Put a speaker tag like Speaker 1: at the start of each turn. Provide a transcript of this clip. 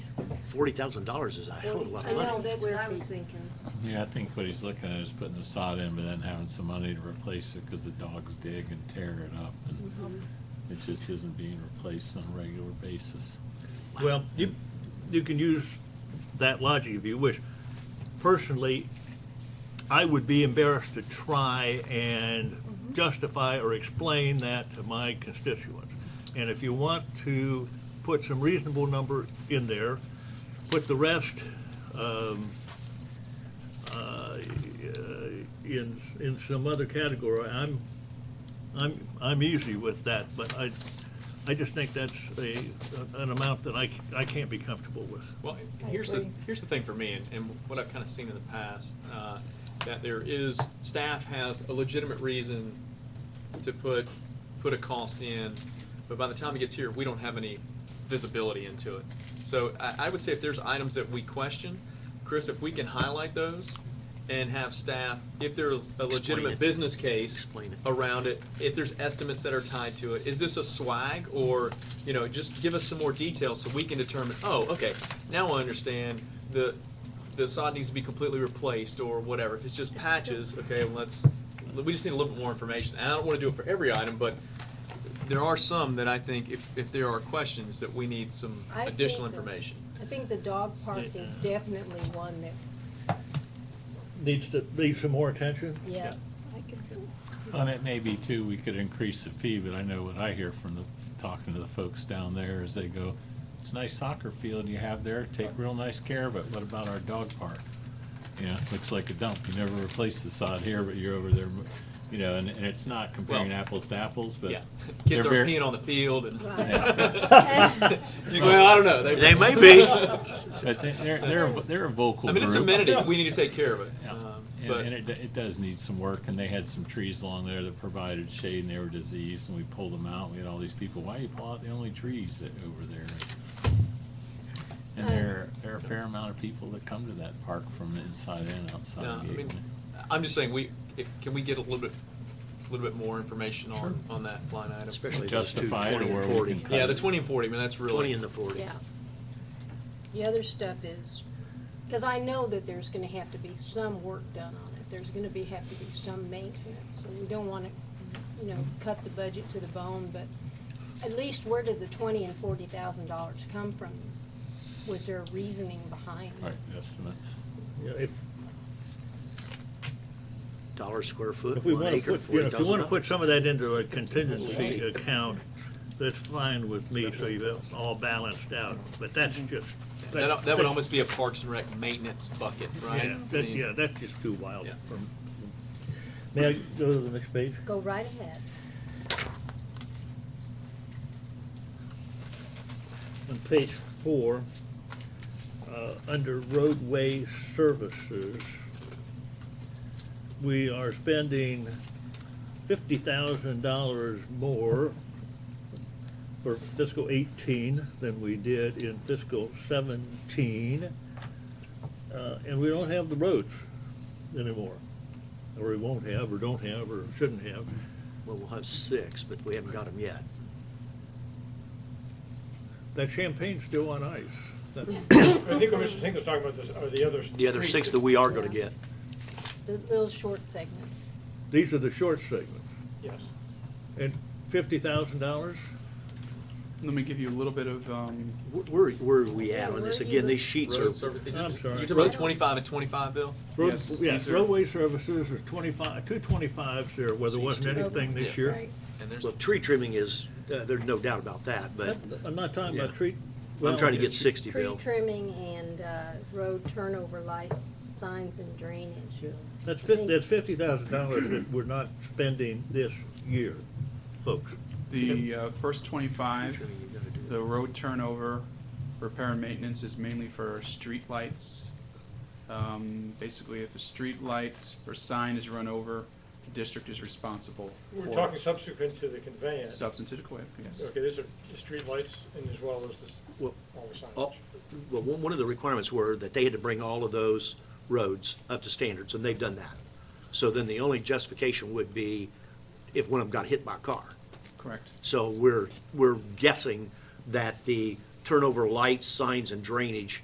Speaker 1: forty thousand dollars is a hell of a lot
Speaker 2: I
Speaker 1: of
Speaker 2: know,
Speaker 1: money.
Speaker 2: that's what I
Speaker 3: Square
Speaker 2: was
Speaker 3: feet.
Speaker 2: thinking.
Speaker 4: Yeah, I think what he's looking at is putting the sod in, but then having some money to replace it because the dogs dig and tear it up. and It just isn't being replaced on a regular basis.
Speaker 5: Well, you, you can use that logic if you wish. Personally, I would be embarrassed to try and justify or explain that to my constituents. And if you want to put some reasonable number in there, put the rest um, uh, in, in some other category, I'm, I'm, I'm easy with that, but I, I just think that's a, an amount that I, c- I can't be comfortable with.
Speaker 6: Well,
Speaker 3: I
Speaker 6: here's the,
Speaker 3: agree.
Speaker 6: here's the thing for me, and, and what I've kind of seen in the past, uh, that there is, staff has a legitimate reason to put, put a cost in, but by the time it gets here, we don't have any visibility into it. So I, I would say if there's items that we question, Chris, if we can highlight those and have staff, if there's a
Speaker 1: it.
Speaker 6: legitimate business case
Speaker 1: Explain it.
Speaker 6: around it, if there's estimates that are tied to it, is this a swag or, you know, just give us some more detail so we can determine, oh, okay, now I understand the, the sod needs to be completely replaced or whatever. If it's just patches, okay, well, let's, we just need a little bit more information. And I don't want to do it for every item, but there are some that I think if, if there are questions that we need some
Speaker 3: I think
Speaker 6: additional
Speaker 3: that-
Speaker 6: information.
Speaker 3: I think the dog park is definitely one that,
Speaker 5: Needs to, needs some more attention?
Speaker 3: yeah, I could,
Speaker 4: And it may be too, we could increase the fee, but I know what I hear from the, talking to the folks down there is they go, it's a nice soccer field you have there, take real nice care of it, what about our dog park? You know, looks like a dump, you never replace the sod here, but you're over there, mo- you know, and, and it's not comparing
Speaker 6: Well,
Speaker 4: apples to apples, but.
Speaker 6: Yeah, kids are
Speaker 4: they're very-
Speaker 6: peeing on the field and,
Speaker 3: Right.
Speaker 6: You go, well, I don't know.
Speaker 1: They may be.
Speaker 4: But they- they're, they're, a- they're a vocal
Speaker 6: I mean, it's
Speaker 4: group.
Speaker 6: amenity, we need to take care of it.
Speaker 4: Yeah.
Speaker 6: Um,
Speaker 4: And,
Speaker 6: But
Speaker 4: and it, it does need some work, and they had some trees along there that provided shade, and they were diseased, and we pulled them out, we had all these people, why you pull out the only trees that over there? And there, there are a fair amount of people that come to that park from the inside and
Speaker 6: No, uh, I
Speaker 4: outside
Speaker 6: mean,
Speaker 4: Gateway.
Speaker 6: I'm just saying, we, if, can we get a little bit, a little bit more information on, on that line item?
Speaker 1: Especially those two,
Speaker 4: Justify it
Speaker 1: twenty and
Speaker 4: where we
Speaker 1: forty.
Speaker 4: can cut
Speaker 6: Yeah, the twenty and forty, I mean, that's really.
Speaker 1: Twenty and the forty.
Speaker 3: yeah. The other stuff is, because I know that there's gonna have to be some work done on it. There's gonna be, have to be some maintenance, and we don't wanna, you know, cut the budget to the bone, but at least where did the twenty and forty thousand dollars come from? Was there reasoning behind it?
Speaker 4: Right, estimates.
Speaker 5: Yeah, If,
Speaker 1: Dollar square foot,
Speaker 5: if we
Speaker 1: one
Speaker 5: want to
Speaker 1: acre,
Speaker 5: put, you
Speaker 1: forty
Speaker 5: know, if you want to
Speaker 1: thousand
Speaker 5: put
Speaker 1: dollars.
Speaker 5: some of that into a contingency account, that's fine with me, so you're all balanced out, but that's just.
Speaker 6: That, that would almost be a Parks and Rec maintenance bucket, right?
Speaker 5: Yeah,
Speaker 6: I
Speaker 5: that,
Speaker 6: mean,
Speaker 5: yeah, that's just too wild.
Speaker 6: Yeah.
Speaker 5: for- May I go to the next page?
Speaker 3: Go right ahead.
Speaker 5: On page four, uh, under roadway services, we are spending fifty thousand dollars more for fiscal eighteen than we did in fiscal seventeen. Uh, And we don't have the roads anymore, or we won't have, or don't have, or shouldn't have.
Speaker 1: Well, we'll have six, but we haven't got them yet.
Speaker 5: That champagne's still on ice. That-
Speaker 7: I think what Mr. Tinkle's talking about this are the others.
Speaker 1: The other six that we are gonna get.
Speaker 3: The little short segments.
Speaker 5: These are the short segments.
Speaker 7: Yes.
Speaker 5: And fifty thousand dollars?
Speaker 8: Let me give you a little bit of, um,
Speaker 1: Wh- Where, where are we
Speaker 3: Yeah,
Speaker 1: at on
Speaker 3: where
Speaker 1: this?
Speaker 3: are you
Speaker 1: Again,
Speaker 3: look-
Speaker 1: these sheets are,
Speaker 6: Road service,
Speaker 5: I'm sorry.
Speaker 6: you're talking about twenty-five and twenty-five, Bill?
Speaker 5: Road-
Speaker 8: Yes,
Speaker 5: Yes,
Speaker 8: these are-
Speaker 5: roadway services is twenty-five, two twenty-fives there, where there wasn't anything this year.
Speaker 3: Right.
Speaker 6: And there's,
Speaker 1: well, tree trimming is, uh, there's no doubt about that, but
Speaker 5: I'm not talking about
Speaker 1: Yeah.
Speaker 5: treat.
Speaker 1: I'm trying to get
Speaker 5: sick.
Speaker 1: sixty,
Speaker 3: Tree
Speaker 1: Bill.
Speaker 3: trimming and uh, road turnover lights, signs and drainage.
Speaker 5: That's
Speaker 3: I
Speaker 5: fif,
Speaker 3: think-
Speaker 5: that's fifty thousand dollars that we're not spending this year, folks.
Speaker 8: the uh, first twenty-five, the road turnover, repair and maintenance is mainly for streetlights. Um, basically, if a streetlight or sign is run over, the district is responsible
Speaker 7: We're
Speaker 8: for
Speaker 7: talking subsequent to the conveyance.
Speaker 8: substantive equipment, yes.
Speaker 7: Okay, these are the streetlights and as well as this,
Speaker 1: Well,
Speaker 7: all the signage.
Speaker 1: all- Well, one, one of the requirements were that they had to bring all of those roads up to standards, and they've done that. So then the only justification would be if one of them got hit by a car.
Speaker 8: Correct.
Speaker 1: So we're, we're guessing that the turnover lights, signs, and drainage